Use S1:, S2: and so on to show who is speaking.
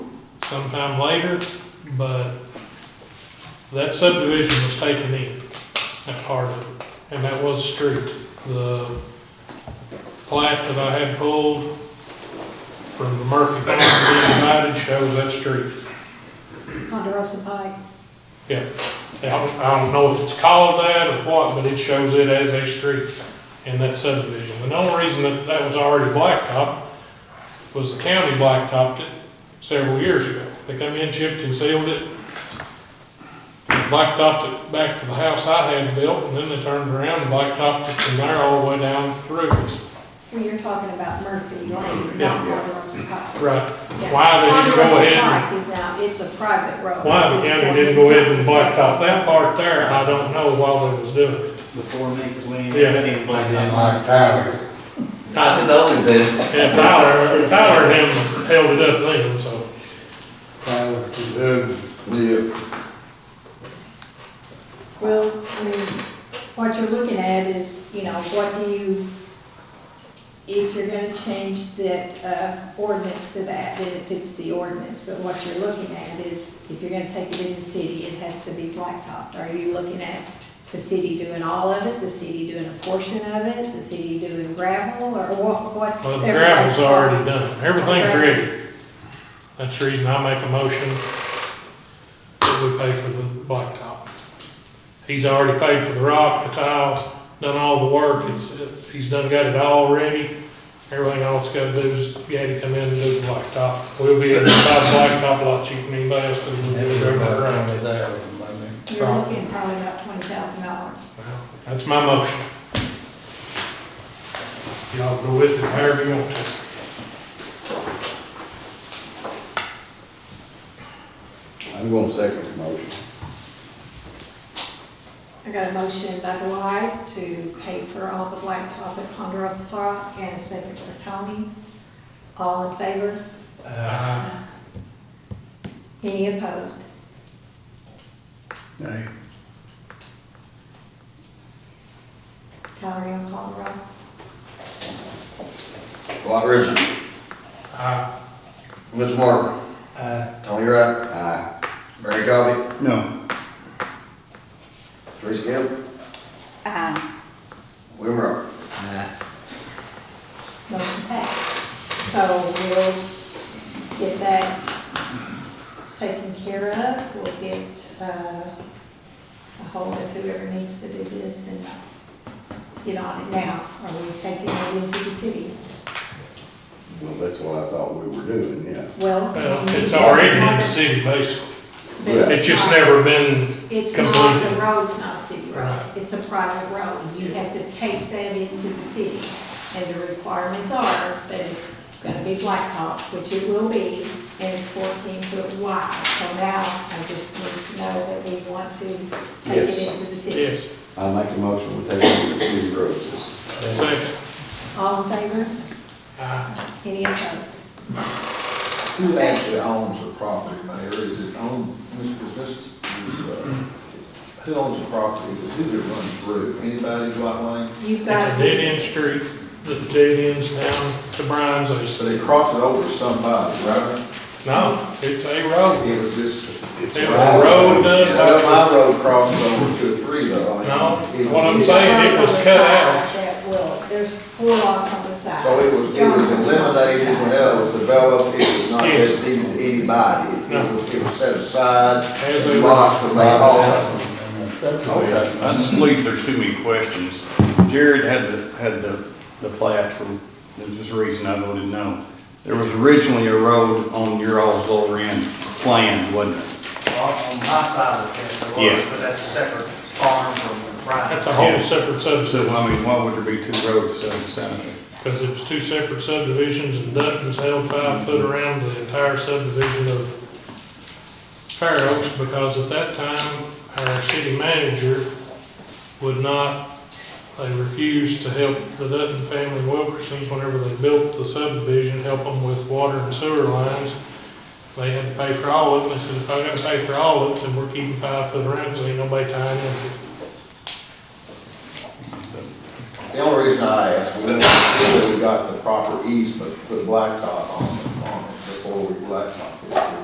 S1: sometime later, but that subdivision was taken in, that part of it, and that was a street. The plat that I had pulled from the Murphy Farm being divided shows that street.
S2: Ponderosa Pike.
S1: I don't, I don't know if it's called that or what, but it shows it as a street in that subdivision. And The only reason that that was already blacktop was the county blacktopped it several years ago. They come in, chipped and sealed it, blacktopped it back to the house I had built, and then they turned around and blacktopped it from there all the way down through.
S2: Well, you're talking about Murphy Lane,
S1: Yeah.
S2: not Ponderosa Pike.
S1: Right.
S2: Yeah.
S1: Why they didn't go ahead and-
S2: Ponderosa Pike is now, it's a private road.
S1: Why the
S2: It's
S1: county
S2: not-
S1: didn't go ahead and blacktop that part there, I don't know while they was doing it.
S3: before me, because we ain't
S1: Yeah.
S3: been even
S4: I
S3: blamed
S4: didn't
S3: on
S4: like Tyler.
S1: I-
S5: I know it did.
S1: Yeah, Tyler, Tyler and him held it up then, so.
S4: Tyler was ugly.
S5: Yeah.
S2: Well, I mean, what you're looking at is, you know, what do you, if you're gonna change that uh, ordinance to that, then it fits the ordinance, but what you're looking at is, if you're gonna take it in the city, it has to be blacktopped. Are you looking at the city doing all of it, the city doing a portion of it, the city doing gravel, or what, what's?
S1: Well, the
S2: everybody's
S1: gravel's already
S2: thoughts?
S1: done, everything's
S2: Gravel.
S1: ready. That's the reason I make a motion that we pay for the blacktop. He's already paid for the rock, the tile, done all the work, it's, he's done got it all ready. Everything all it's gotta do is, you had to come in and do the blacktop. We'll be able to buy the blacktop a lot cheaper than anybody else, because we'll
S4: It
S1: do
S4: was
S1: it
S4: about
S1: over around.
S4: twenty thousand by me.
S2: You're looking probably about twenty thousand dollars.
S1: Well, That's my motion. Y'all go with it however you want to.
S5: I'm gonna second the motion.
S2: I got a motion by Dwight to pay for all the blacktop at Ponderosa Park and a second by Tony. All in favor?
S1: Uh,
S2: Any opposed?
S3: it.
S2: Tyler, you on call the roll?
S5: Dwight Richard,
S1: I,
S5: Mitch Marver,
S4: Uh,
S5: Tony Wright. Aye. Barry Covey,
S3: No,
S5: Teresa Campbell,
S6: Aye.
S5: William Rowe.
S2: Motion passed. So we'll get that taken care of. We'll get uh, a hold of whoever needs to do this and get on it now. Are we taking it into the city?
S7: Well, that's what I thought we were doing, yeah.
S2: Well.
S1: well, it's already in the city basically.
S2: But it's
S1: It's just
S2: not-
S1: never been,
S2: It's not, the
S1: Completely.
S2: road's not a city road,
S1: Right.
S2: it's a private road, you have to take that into the city. And the requirements are that it's gonna be blacktop, which it will be, and it's fourteen foot wide. So now, I just need to know that we want to take it
S7: Yes.
S2: into the city.
S1: yes,
S7: I make a motion, we take it to the city road system.
S1: second.
S2: All in favor,
S1: I,
S2: any opposed?
S8: Who actually owns the property, Mayor? Is it owned, Mr. Business? Who owns the property? Who's it run through? Anybody, Dwight Lane?
S2: You've
S1: it's a
S2: got.
S1: dead end street, the dead ends down to Brian's, they
S8: So
S1: said,
S8: they crossed it over to somebody, right?
S1: no, it's a road.
S8: It was just.
S1: It's a road
S8: Yeah, well,
S1: done,
S8: My road crossed over to a three though. I mean,
S1: No,
S8: it-
S1: what I'm
S8: it-
S1: saying- it was cut out.
S2: Lots on the side That will, there's four lots on the side.
S8: So it was, it was eliminated when it was developed, it was not
S1: Yes.
S8: destined to anybody. It- It was, it was set aside,
S1: As a-
S8: lots were made off. Okay.
S3: I just believe there's too many questions. Jared had the, had the, the plat from, there's this reason I voted no. There was originally a road on your all's lower end planned, wasn't it?
S9: On on my side of the fence, there
S3: Yeah.
S9: was, but that's a separate farm from
S1: that's
S9: Brian.
S1: a whole separate subdivision,
S3: So, I mean, why would there be two roads side by side?
S1: because it was two separate subdivisions, and Dutton's held five foot around the entire subdivision of Fair Oaks, because at that time, our city manager would not, they refused to help the Dutton family Wilkersons whenever they built the subdivision, help them with water and sewer lines. They had to pay for all of it, and they said, if I gotta pay for all of it, then we're keeping five foot around, because ain't nobody tying in.
S8: The only reason I asked, we wanted to make sure we got the proper easement, to put blacktop on, on it before we blacktop.